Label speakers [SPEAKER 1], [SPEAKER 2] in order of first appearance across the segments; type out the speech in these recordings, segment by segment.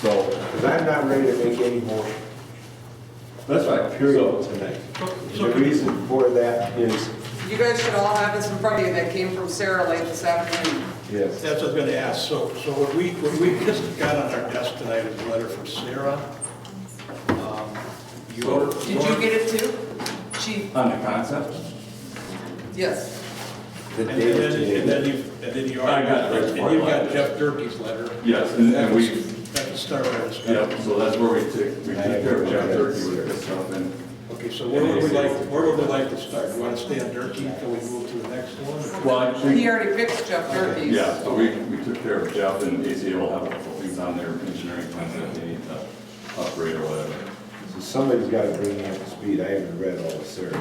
[SPEAKER 1] So,
[SPEAKER 2] Because I'm not ready to make any motion,
[SPEAKER 1] that's right,
[SPEAKER 2] period,
[SPEAKER 1] so,
[SPEAKER 2] tonight.
[SPEAKER 3] so-
[SPEAKER 2] The reason for that is,
[SPEAKER 4] You guys should all have this in front of you that came from Sarah late this afternoon.
[SPEAKER 2] yes,
[SPEAKER 3] That's what I was gonna ask, so, so what we, what we just got on our desk tonight is a letter from Sarah. Um, your-
[SPEAKER 4] Did you get it too? She,
[SPEAKER 1] on the concept,
[SPEAKER 4] yes.
[SPEAKER 2] the
[SPEAKER 3] And then,
[SPEAKER 2] day of
[SPEAKER 3] and then
[SPEAKER 2] today.
[SPEAKER 3] you, and then you
[SPEAKER 1] I
[SPEAKER 3] already,
[SPEAKER 1] got it.
[SPEAKER 3] and you've got Jeff Durkee's letter.
[SPEAKER 1] Yes, and- and we-
[SPEAKER 3] That was started our discussion.
[SPEAKER 1] yeah, so that's where we take, we take care of John Turkey with this stuff, and
[SPEAKER 3] Okay, so where would we like, where would we like to start? You wanna stay on Durkee until we move to the next one?
[SPEAKER 1] Well, I think-
[SPEAKER 4] He already fixed Jeff Durkee's.
[SPEAKER 1] yeah, so we, we took care of Jeff, and ACA will have a couple things on their engineering plans that they need to upgrade or whatever.
[SPEAKER 2] So somebody's got to bring me up to speed, I haven't read all the series.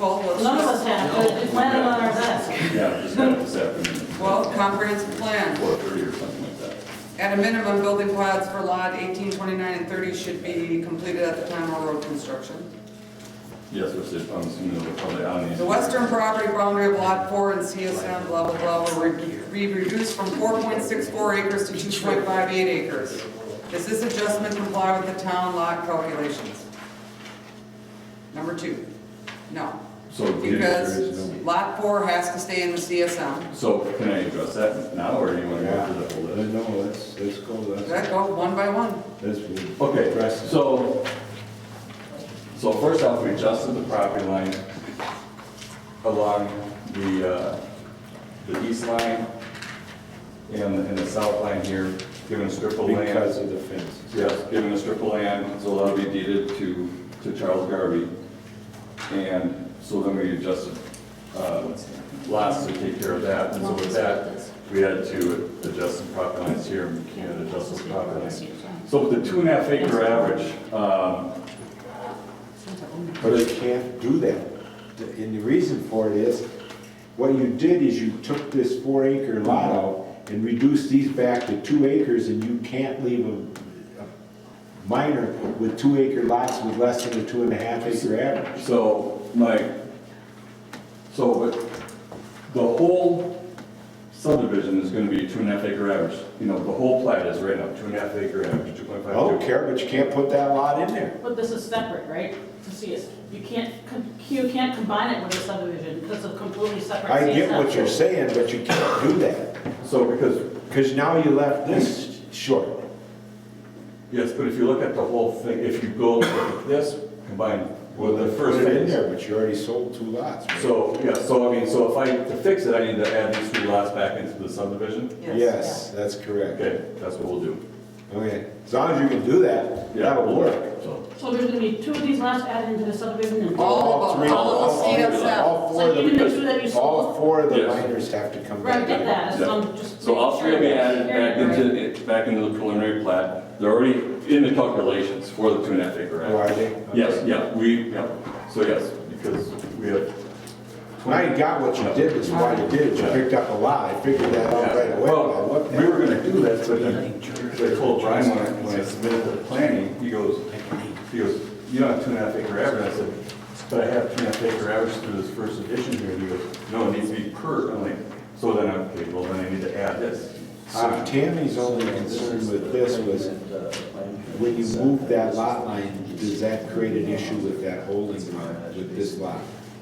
[SPEAKER 4] Well, let's
[SPEAKER 5] None of us
[SPEAKER 4] just,
[SPEAKER 5] have, but it's landed on our desk.
[SPEAKER 1] Yeah, just got it this afternoon.
[SPEAKER 4] well, comprehensive plan.
[SPEAKER 1] Four thirty or something like that.
[SPEAKER 4] At a minimum, building plans for lot 18, 29, and 30 should be completed at the time of road construction.
[SPEAKER 1] Yes, which is, I'm assuming they're probably on these.
[SPEAKER 4] The western property boundary of lot four and CSM, blah, blah, blah, will re- be reduced from four point six four acres to two point five eight acres. Does this adjustment comply with the town lot calculations? Number two, no,
[SPEAKER 1] So,
[SPEAKER 4] because
[SPEAKER 1] did-
[SPEAKER 4] lot four has to stay in the CSM.
[SPEAKER 1] so can I address that now, or do you want to go through the whole list?
[SPEAKER 2] No, let's, let's go,
[SPEAKER 4] Does
[SPEAKER 2] let's,
[SPEAKER 4] that go one by one?
[SPEAKER 2] let's. move.
[SPEAKER 1] Okay,
[SPEAKER 2] Address it.
[SPEAKER 1] so, so first off, we adjusted the property line along the, uh, the east line and, and the south line here, given a strip of land.
[SPEAKER 2] Because of the fence.
[SPEAKER 1] Yes, given a strip of land, so that'll be deeded to, to Charles Garvey. And so then we adjusted, uh, lots to take care of that, and so with that, we had to adjust some property lines here, and we can't adjust those property lines. So with the two and a half acre average, um,
[SPEAKER 2] But you can't do that. And the reason for it is, what you did is you took this four acre lot out and reduced these back to two acres and you can't leave a, a minor with two acre lots with less than a two and a half acre average.
[SPEAKER 1] so my, so but the whole subdivision is gonna be two and a half acre average. You know, the whole plat is right now, two and a half acre average, two point
[SPEAKER 2] I
[SPEAKER 1] five.
[SPEAKER 2] don't care, but you can't put that lot in there.
[SPEAKER 5] But this is separate, right? To see us, you can't, com- you can't combine it with a subdivision because of completely separate.
[SPEAKER 2] I get
[SPEAKER 5] CSS.
[SPEAKER 2] what you're saying, but you can't do that.
[SPEAKER 1] So because
[SPEAKER 2] Cause now you left this short.
[SPEAKER 1] Yes, but if you look at the whole thing, if you go with this combined with the first
[SPEAKER 2] Put it in
[SPEAKER 1] phase.
[SPEAKER 2] there, but you already sold two lots.
[SPEAKER 1] So, yeah, so I mean, so if I, to fix it, I need to add these three lots back into the subdivision?
[SPEAKER 2] Yes, that's correct.
[SPEAKER 1] Okay, that's what we'll do.
[SPEAKER 2] Okay, as long as you can do that,
[SPEAKER 1] Yeah,
[SPEAKER 2] that'll work.
[SPEAKER 1] So,
[SPEAKER 5] So there's gonna be two of these lots added into the subdivision and.
[SPEAKER 4] All of
[SPEAKER 2] three-
[SPEAKER 4] them, all of
[SPEAKER 2] all-
[SPEAKER 4] the CSM.
[SPEAKER 2] all four
[SPEAKER 5] So
[SPEAKER 2] of
[SPEAKER 5] you
[SPEAKER 2] them-
[SPEAKER 5] need to make sure that you
[SPEAKER 2] All
[SPEAKER 5] sold.
[SPEAKER 2] four of the
[SPEAKER 1] Yes.
[SPEAKER 2] minors have to come
[SPEAKER 5] Right,
[SPEAKER 2] back.
[SPEAKER 5] get that, so I'm um, just.
[SPEAKER 1] so all three will be added back
[SPEAKER 5] Right.
[SPEAKER 1] into, back into the preliminary plat. They're already in the calculations for the two and a half acre.
[SPEAKER 2] Oh, are
[SPEAKER 1] act.
[SPEAKER 2] they?
[SPEAKER 1] Yes, yeah, we, yeah, so yes, because we have.
[SPEAKER 2] Now you got what you did, is why you did it, you picked up a lot, I figured that out right away. when I
[SPEAKER 1] Well,
[SPEAKER 2] looked at
[SPEAKER 1] we
[SPEAKER 2] it.
[SPEAKER 1] were gonna do that, but then I told Brian when I, when I submitted the planning, he goes, he goes, you don't have two and a half acre average. I said, but I have two and a half acre average through this first edition here. And he goes, no, it needs to be per, I'm like, so then, I'm okay, well, then I need to add this.
[SPEAKER 2] So Tammy's only concern with this was, when you move that lot line, does that create an issue with that holding lot, with this lot?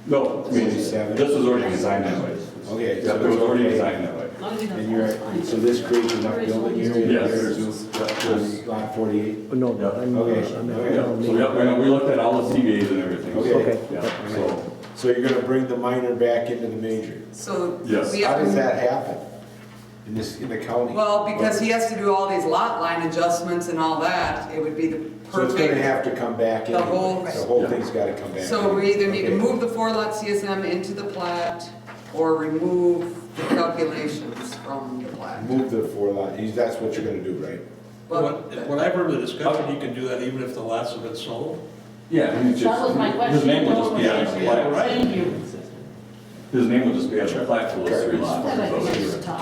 [SPEAKER 1] No, I mean, this
[SPEAKER 2] Forty-seven.
[SPEAKER 1] was already designed that way.
[SPEAKER 2] Okay,
[SPEAKER 1] Yeah,
[SPEAKER 2] so
[SPEAKER 1] it was
[SPEAKER 2] it's
[SPEAKER 1] already
[SPEAKER 2] okay.
[SPEAKER 1] designed that way.
[SPEAKER 5] As long as you know
[SPEAKER 2] And you're,
[SPEAKER 5] that's fine.
[SPEAKER 2] so this creates enough building area
[SPEAKER 1] Yes.
[SPEAKER 2] there to, lot forty-eight?
[SPEAKER 6] No, no, I'm,
[SPEAKER 2] Okay.
[SPEAKER 6] I'm not.
[SPEAKER 1] Yeah, so, yeah, we- we looked at all the CVAs and everything. so,
[SPEAKER 2] Okay.
[SPEAKER 1] Yeah, so,
[SPEAKER 2] So you're gonna bring the minor back into the major?
[SPEAKER 4] So
[SPEAKER 1] Yes.
[SPEAKER 4] we
[SPEAKER 2] How
[SPEAKER 4] have
[SPEAKER 2] does
[SPEAKER 4] to,
[SPEAKER 2] that happen? In this, in the county?
[SPEAKER 4] well, because he has to do all these lot line adjustments and all that, it would be the
[SPEAKER 2] So it's gonna
[SPEAKER 4] perfect.
[SPEAKER 2] have to come back in.
[SPEAKER 4] The whole-
[SPEAKER 2] The whole thing's gotta come back.
[SPEAKER 4] So we either need to
[SPEAKER 2] Okay.
[SPEAKER 4] move the four lot CSM into the plat or remove the calculations from the plat.
[SPEAKER 2] Move the four lot, You- that's what you're gonna do, right?
[SPEAKER 4] Well,
[SPEAKER 3] What, what I remember the discussion, you can do that even if the lots have been sold.
[SPEAKER 1] yeah. I mean, it's
[SPEAKER 5] That
[SPEAKER 1] just-
[SPEAKER 5] was my question.
[SPEAKER 1] His name will just be on
[SPEAKER 5] What was
[SPEAKER 1] the
[SPEAKER 5] the
[SPEAKER 1] plat.
[SPEAKER 5] answer?
[SPEAKER 3] right?
[SPEAKER 5] Thank you.
[SPEAKER 1] His name will just be on the plat for those three lots.
[SPEAKER 5] That might be
[SPEAKER 1] So-
[SPEAKER 5] nice to talk.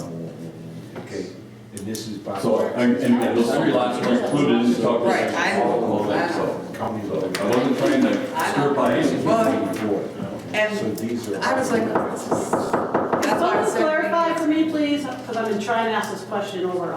[SPEAKER 2] Okay, and this is by.
[SPEAKER 1] So, and, and and those three lots are included in the calculation.
[SPEAKER 4] Right, I-
[SPEAKER 1] All of them, so-
[SPEAKER 2] County
[SPEAKER 1] so
[SPEAKER 2] road.
[SPEAKER 1] I wasn't trying to
[SPEAKER 4] I know.
[SPEAKER 1] stir by anything.
[SPEAKER 4] Well,
[SPEAKER 2] So
[SPEAKER 4] and
[SPEAKER 2] these are.
[SPEAKER 4] I was like, this is- that's why I
[SPEAKER 5] Someone
[SPEAKER 4] said. we-
[SPEAKER 5] clarify for me, please, because I've been trying to ask this question over